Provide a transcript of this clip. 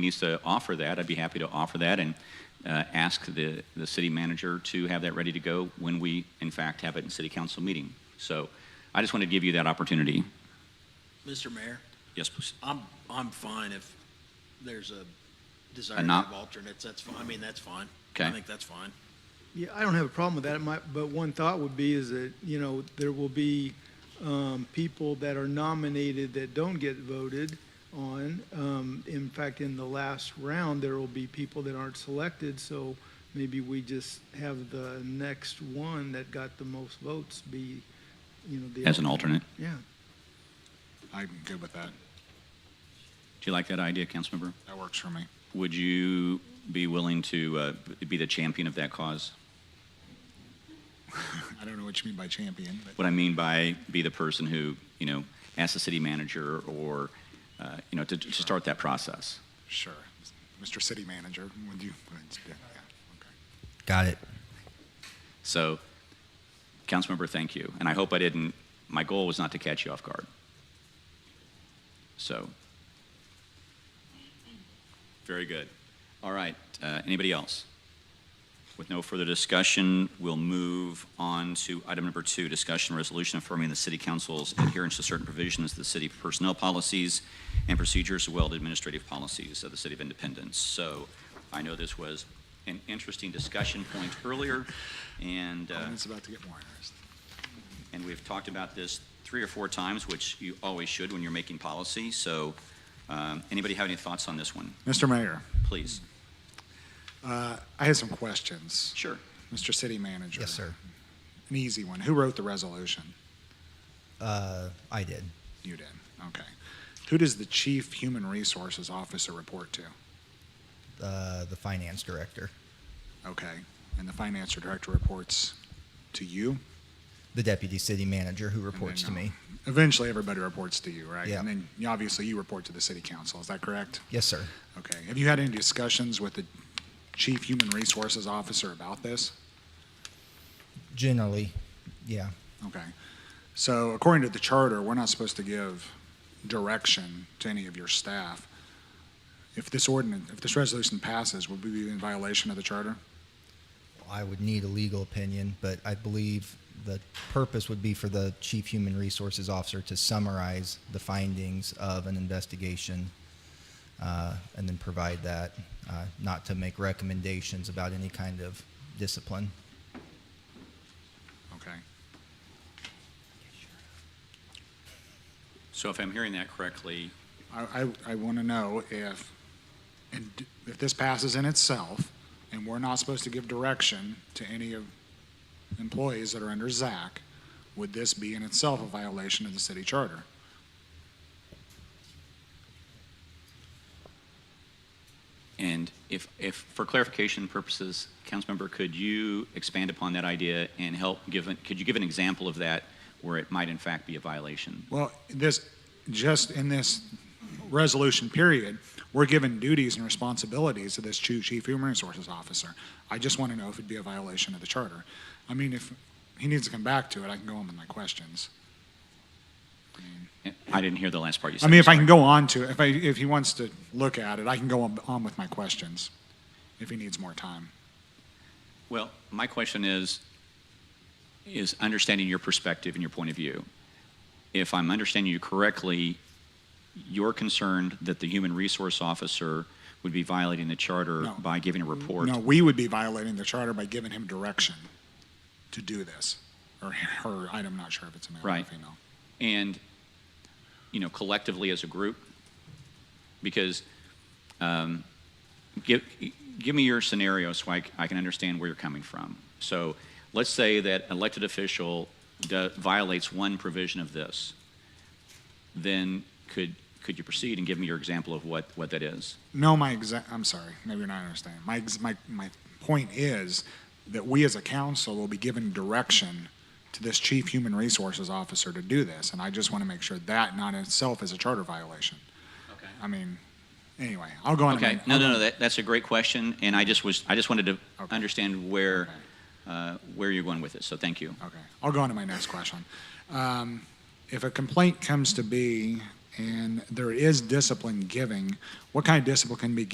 needs to offer that, I'd be happy to offer that and uh, ask the, the city manager to have that ready to go when we, in fact, have it in city council meeting. So I just wanted to give you that opportunity. Mr. Mayor, Yes, please. I'm, I'm fine if there's a desire A to not- have alternates, that's fine, I mean, that's fine. Okay. I think that's fine. Yeah, I don't have a problem with that. It might, but one thought would be is that, you know, there will be um, people that are nominated that don't get voted on. Um, In fact, in the last round, there will be people that aren't selected, so maybe we just have the next one that got the most votes be, you know, the. As an alternate. Yeah. I'm good with that. Do you like that idea, Councilmember? That works for me. Would you be willing to uh, be the champion of that cause? I don't know what you mean by champion, but What I mean by be the person who, you know, asks the city manager or, uh, you know, to, to start that process. sure. Mr. City Manager, would you? Yeah, yeah, okay. Got it. So, Councilmember, thank you. And I hope I didn't, my goal was not to catch you off guard. So, very good. All right, uh, anybody else? With no further discussion, we'll move on to item number two, discussion resolution affirming the city council's adherence to certain provisions of the city personnel policies and procedures, as well as administrative policies of the city of Independence. So I know this was an interesting discussion point earlier, and, uh, And it's about to get more interesting. and we've talked about this three or four times, which you always should when you're making policy. So um, anybody have any thoughts on this one, Mr. Mayor, please? I have some questions. Sure. Mr. City Manager. Yes, sir. An easy one. Who wrote the resolution? Uh, I did. You did. Okay. Who does the Chief Human Resources Officer report to? Uh, the finance director, Okay. And the Finance Director reports to you? the deputy city manager who And reports to then, uh, me. Eventually, everybody reports to you, right? Yeah. And then, you- obviously, you report to the City Council. Is that correct? Yes, sir. Okay. Have you had any discussions with the Chief Human Resources Officer about this? Generally, yeah. Okay. So according to the charter, we're not supposed to give direction to any of your staff. If this ordinance, if this resolution passes, would we be in violation of the charter? I would need a legal opinion, but I believe the purpose would be for the chief human resources officer to summarize the findings of an investigation uh, and then provide that, uh, not to make recommendations about any kind of discipline. Okay. So if I'm hearing that correctly, I, I, I want to know if, and d- if this passes in itself, and we're not supposed to give direction to any of employees that are under Zach, would this be in itself a violation of the city charter? And if, if, for clarification purposes, Councilmember, could you expand upon that idea and help give, an- could you give an example of that where it might in fact be a violation? Well, this, just in this resolution period, we're given duties and responsibilities to this chu- chief human resources officer. I just want to know if it'd be a violation of the charter. I mean, if he needs to come back to it, I can go on with my questions. I didn't hear the last part you I said. mean, if I can go on to, if I, if he wants to look at it, I can go on, on with my questions, if he needs more time. Well, my question is, is understanding your perspective and your point of view. If I'm understanding you correctly, you're concerned that the human resource officer would be violating the charter No. by giving a report? No, we would be violating the charter by giving him direction to do this, or her, I'm not sure if it's a male or Right. female. and you know collectively as a group because um, give, give me your scenario so I, c- I can understand where you're coming from so let's say that elected official do, violates one provision of this then could could you proceed and give me your example of what what that is No, my exact. I'm sorry. Maybe you're not understanding. My ex- my my point is that we as a council will be given direction to this chief human resources officer to do this, and I just want to make sure that not in itself is a charter violation. okay I mean, anyway, I'll go on. to my- Okay, no, no, no, that, that's a great question, and I just was, I just wanted to Okay. understand where, Okay. uh, where you're going with it, so thank you. Okay, I'll go on to my next question. Um, if a complaint comes to be and there is discipline giving, what kind of discipline can be